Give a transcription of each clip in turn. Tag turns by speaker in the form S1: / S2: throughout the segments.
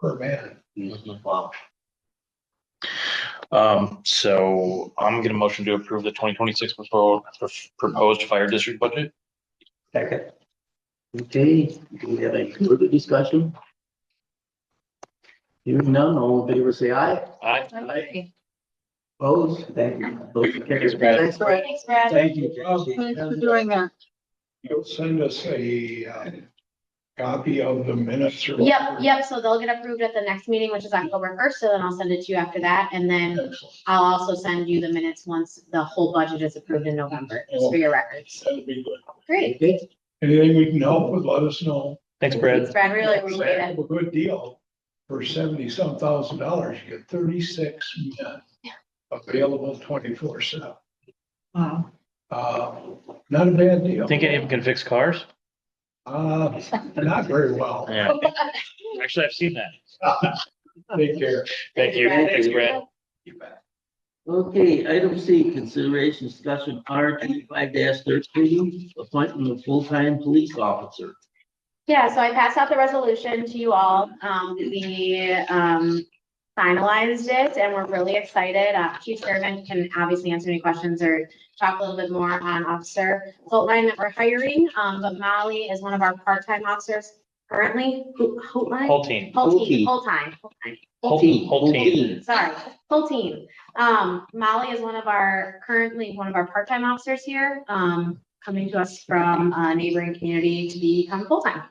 S1: per man.
S2: Mm-hmm.
S1: Wow.
S3: Um, so I'm gonna motion to approve the twenty twenty-six proposed fire district budget.
S2: Second. Okay, do we have any further discussion? Hearing none, all in favor, say aye.
S3: Aye.
S2: Aye. Opposed, thank you. Motion carries.
S3: Thanks, Brad.
S2: Thanks, Brad.
S4: Thanks, Brad.
S2: Thank you. Jesse.
S5: Thanks for doing that.
S1: You'll send us a uh, copy of the minutes or.
S4: Yep, yep, so they'll get approved at the next meeting, which is October first, so then I'll send it to you after that, and then
S1: Excellent.
S4: I'll also send you the minutes once the whole budget is approved in November, just for your records.
S1: That'd be good.
S4: Great,
S2: Okay,
S1: Anything we can help with, let us know.
S3: Thanks,
S4: thanks,
S3: Brad.
S4: Brad, really
S1: It's
S4: appreciate
S1: a
S4: it.
S1: Good deal for seventy some thousand dollars, you get thirty six men available twenty four seven.
S5: Wow.
S1: Uh, not a bad deal.
S3: Think anyone can fix cars?
S1: Uh, not very well.
S3: Yeah. Actually, I've seen that.
S1: Take care.
S3: Thank you. Thanks, Brad.
S1: You bet.
S2: Okay, item C, consideration discussion R twenty-five thirteen, appointment of full-time police officer.
S4: Yeah, so I passed out the resolution to you all. Um, we, um, finalized it and we're really excited. Uh, Chief Sherman can obviously answer any questions or talk a little bit more on Officer Holtline that we're hiring. Um, but Molly is one of our part-time officers currently. Ho- Holtline?
S3: Whole team.
S4: Holteen, Holtime, Holtime.
S3: Whole
S2: Team,
S3: team. Whole team.
S4: Sorry, full team. Um, Molly is one of our, currently one of our part-time officers here, um, coming to us from a neighboring community to become full-time.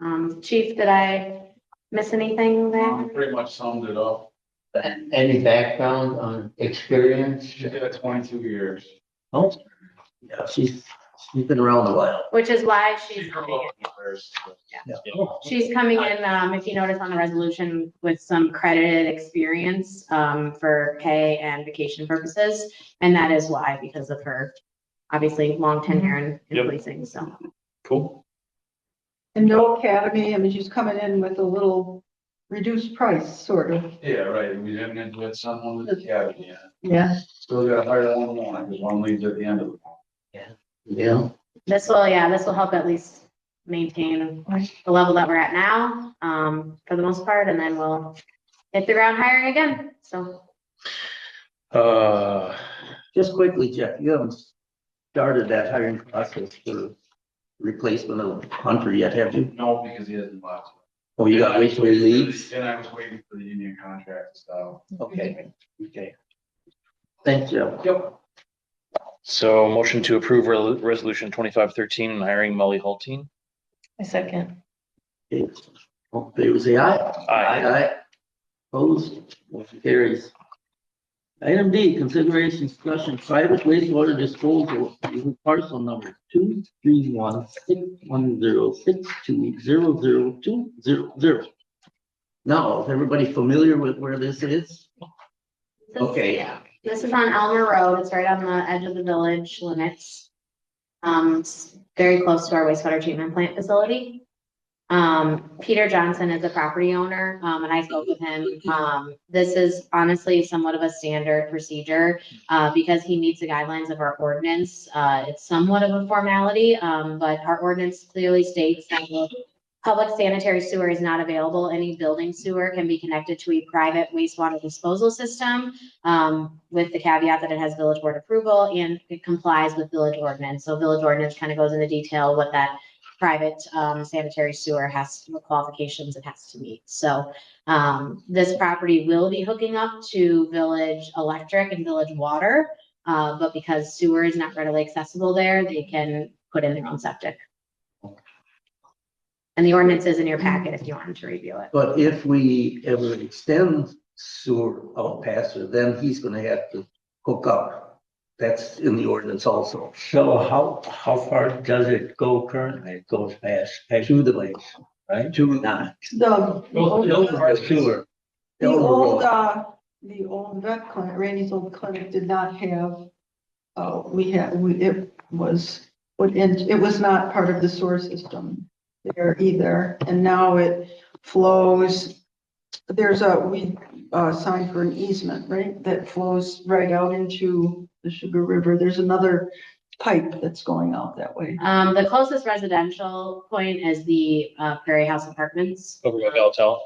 S4: Um, chief, did I miss anything there?
S6: Pretty much summed it up.
S2: Any background on experience?
S6: She did it twenty-two years.
S2: Oh, yeah, she's, she's been around a while.
S4: Which is why she's,
S6: She's a little embarrassed.
S4: she's coming in, um, if you notice on the resolution with some credited experience, um, for pay and vacation purposes. And that is why, because of her, obviously, long tenure in- in
S3: Yep.
S4: policing, so.
S3: Cool.
S5: And no academy, I mean, she's coming in with a little reduced price, sort of.
S6: Yeah, right, we didn't have to let someone with the academy yet.
S5: Yeah.
S6: Still gotta hire one more, because one leaves at the end of the. month.
S2: Yeah,
S4: This will, yeah, this will help at least maintain
S5: Right.
S4: the level that we're at now, um, for the most part, and then we'll hit the ground hiring again, so.
S3: Uh,
S2: just quickly, Jeff, you haven't started that hiring process for replacement of Hunter yet, have you?
S6: No, because he hasn't left.
S2: Oh, you gotta wait till he leaves?
S6: And I was waiting for the union contract to style.
S2: Okay, okay. Thanks, Jeff.
S6: Yep.
S3: so motion to approve re- resolution twenty-five thirteen, hiring Molly Whole team.
S5: A second.
S2: Okay, all in favor, say aye.
S3: Aye.
S2: Opposed, motion carries. Item D, consideration discussion private wastewater disposal using parcel number two three one six one zero six two zero zero two zero zero. Now, is everybody familiar with where this is?
S4: this is-
S2: Okay.
S4: yeah. This is on Elmer Road, it's right on the edge of the village limits. Um, it's very close to our wastewater treatment plant facility. Um, Peter Johnson is the property owner, um, and I spoke with him. Um, this is honestly somewhat of a standard procedure, uh, because he meets the guidelines of our ordinance. Uh, it's somewhat of a formality, um, but our ordinance clearly states that public sanitary sewer is not available. Any building sewer can be connected to a private wastewater disposal system, um, with the caveat that it has village board approval and it complies with village ordinance. So village ordinance kind of goes into detail what that private, um, sanitary sewer has, what qualifications it has to meet. So, um, this property will be hooking up to village electric and village water. Uh, but because sewer is not readily accessible there, they can put in their own septic. And the ordinance is in your packet if you wanted to review it.
S2: But if we ever extend sewer out past her, then he's gonna have to hook up. That's in the ordinance also,
S7: So how, how far does it go currently? It goes past, past
S2: to the lake,
S7: right?
S2: to
S7: Not.
S5: The, the
S7: Those- those
S5: old-
S7: are sewer.
S5: the
S2: Elmer Road.
S5: old, uh, the old vet clinic, Randy's old clinic did not have, uh, we had, we, it was, would, in- it was not part of the sewer system there either, and now it flows. There's a, we, uh, signed for an easement, right, that flows right out into the Sugar River. There's another pipe that's going out that way.
S4: Um, the closest residential point is the uh, Prairie House Apartments.
S3: Over by Belltel.